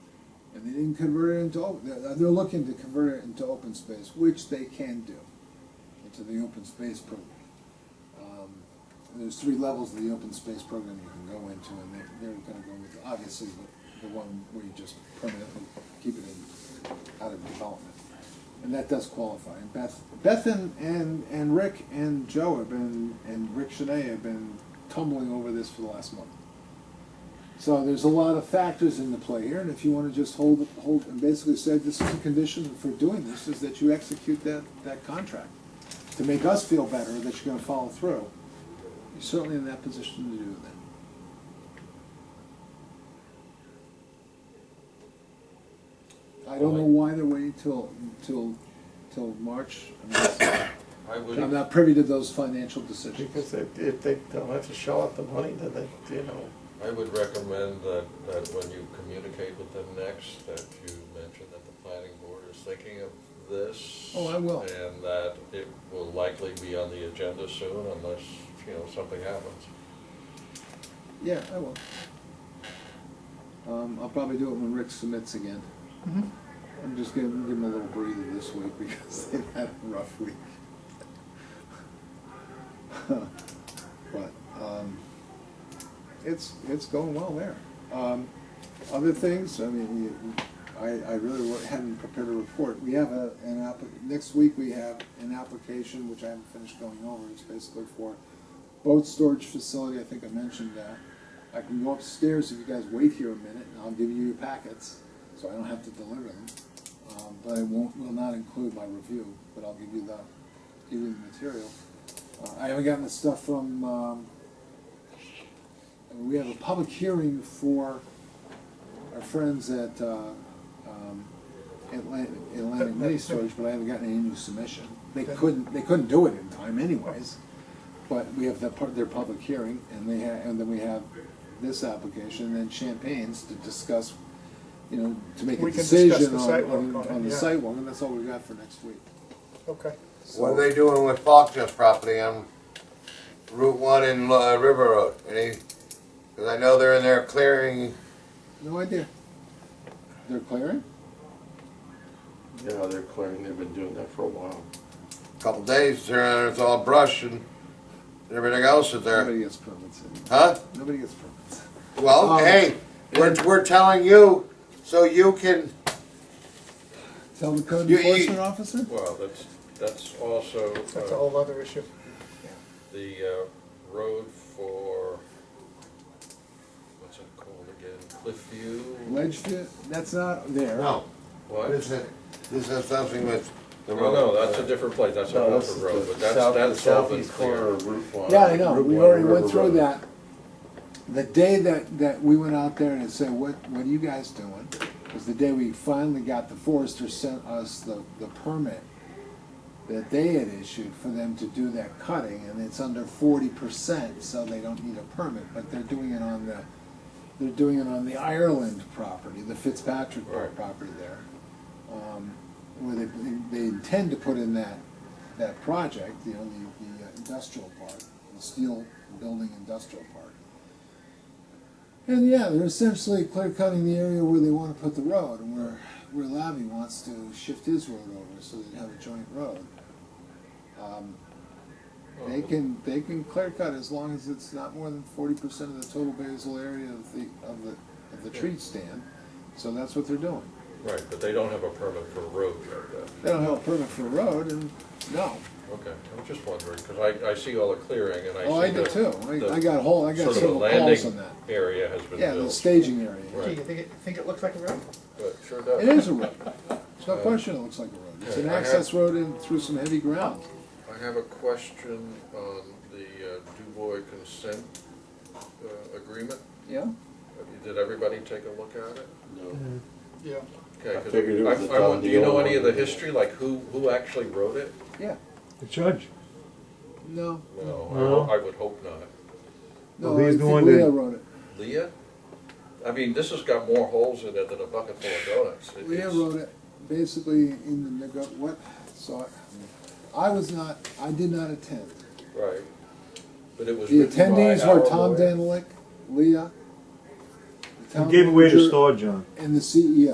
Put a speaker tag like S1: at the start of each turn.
S1: and they didn't convert it into, op- they're, they're looking to convert it into open space, which they can do, into the open space program. Um, There's three levels of the open space program you can go into, and they're, they're gonna go with, obviously, the, the one where you just permanently keep it in, out of development. And that does qualify, and Beth, Beth and, and, and Rick and Joe have been, and Rick Shanae have been tumbling over this for the last month. So there's a lot of factors into play here, and if you want to just hold, hold, and basically say this is a condition for doing this, is that you execute that, that contract. To make us feel better that you're gonna follow through, you're certainly in that position to do that. I don't know why they're waiting till, till, till March, I
S2: I would,
S1: mean, I'm not privy to those financial decisions.
S3: Because if, if they don't have to shell out the money, then they, you know,
S2: I would recommend that, that when you communicate with them next, that you mention that the planning board is thinking of this.
S1: Oh, I will.
S2: And that it will likely be on the agenda soon unless, you know, something happens.
S1: Yeah, I will. Um, I'll probably do it when Rick submits again. I'm just gonna give them a little breather this week because they've had a rough week. But, um, it's, it's going well there. Um, other things, I mean, you- I, I really wa- hadn't prepared a report. We have a, an app, next week we have an application, which I haven't finished going over, it's basically for boat storage facility, I think I mentioned that. I can go upstairs if you guys wait here a minute, and I'll give you your packets, so I don't have to deliver them. Um, but I won't, will not include my review, but I'll give you the, give you the material. Uh, I haven't gotten the stuff from, um, we have a public hearing for our friends at, uh, um, Atlantic, Atlantic Mini Storage, but I haven't gotten any new submission. They couldn't, they couldn't do it in time anyways. But we have that part, their public hearing, and they ha and then we have this application, and then Champagne's to discuss, you know, to make a
S3: We can discuss the
S1: decision on,
S3: sidewalk
S1: on,
S3: on it,
S1: on the
S3: yeah.
S1: sidewalk, and that's all we got for next week.
S3: okay.
S4: What are they doing with Faulkner's property on Route One and uh, River Road? Any, because I know they're in there clearing,
S1: No idea. They're clearing?
S3: Yeah, they're clearing, they've been doing that for a while.
S4: a couple days, there, it's all brush and everything else is there,
S1: Nobody gets permits anymore.
S4: huh?
S1: Nobody gets permits.
S4: Well,
S1: Um,
S4: hey, we're, we're telling you, so you can,
S1: Tell the code
S4: You- you-
S1: enforcement officer?
S2: Well, that's, that's also
S3: That's a
S2: uh,
S3: whole other issue.
S2: the uh, road for, what's it called again, Cliffview?
S1: Ledgeview, that's not there.
S4: no,
S2: What?
S4: this is, this has something with the
S2: No,
S4: road.
S2: no, that's a different place, that's a Milford Road, but that's, that's all been cleared.
S3: of Route One.
S1: Yeah, I know, we already went through that. The day that, that we went out there and said, what, what are you guys doing? Was the day we finally got, the forester sent us the, the permit that they had issued for them to do that cutting, and it's under forty percent, so they don't need a permit, but they're doing it on the, they're doing it on the Ireland property, the Fitzpatrick
S2: Right.
S1: property there. Um, Where they, they intend to put in that, that project, you know, the, the uh, industrial part, the steel building industrial part. And yeah, they're essentially clear cutting the area where they want to put the road and where, where Labby wants to shift his road over so they have a joint road. Um,
S2: Oh.
S1: They can, they can clear cut as long as it's not more than forty percent of the total basal area of the, of the, of the tree stand. So that's what they're doing.
S2: Right, but they don't have a permit for a road yet,
S1: They don't have a permit for a road and, no.
S2: okay, I'm just wondering, because I, I see all the clearing and I see the.
S1: Oh, I did too. I, I
S2: the
S1: got a whole, I got
S2: sort of a
S1: several calls
S2: landing
S1: on that.
S2: Area has been built.
S1: Yeah, the staging area.
S2: Right.
S3: you think it, think it looks like a road?
S2: But sure
S1: It
S2: does.
S1: is a road. It's no question it looks like a road. It's an
S2: Yeah, I
S1: access road in through some heavy ground.
S2: I have a question on the uh, DuBois consent uh, agreement.
S1: Yeah?
S2: Did everybody take a look at it?
S3: Yeah.
S2: Okay,
S3: I
S2: 'cause
S3: figured it was
S2: I- I
S3: a
S2: want-
S3: done
S2: Do you know
S3: deal.
S2: any of the history, like who, who actually wrote it?
S1: Yeah.
S5: The judge.
S1: No.
S2: No, I
S5: No.
S2: ho- I would hope not.
S1: No,
S5: Well, he's
S1: I
S5: the
S1: think
S5: one
S1: Leah
S5: that-
S1: wrote it.
S2: Leah? I mean, this has got more holes in it than a bucket full of donuts. It
S1: Leah
S2: is-
S1: wrote it basically in the nego, what, so I, I was not, I did not attend.
S2: Right. But it was
S1: The
S2: written by
S1: attendees were
S2: our
S1: Tom
S2: lawyer.
S1: Danilick, Leah. the
S5: He
S1: town
S5: gave away the
S1: manager,
S5: store, John.
S1: And the E CEO.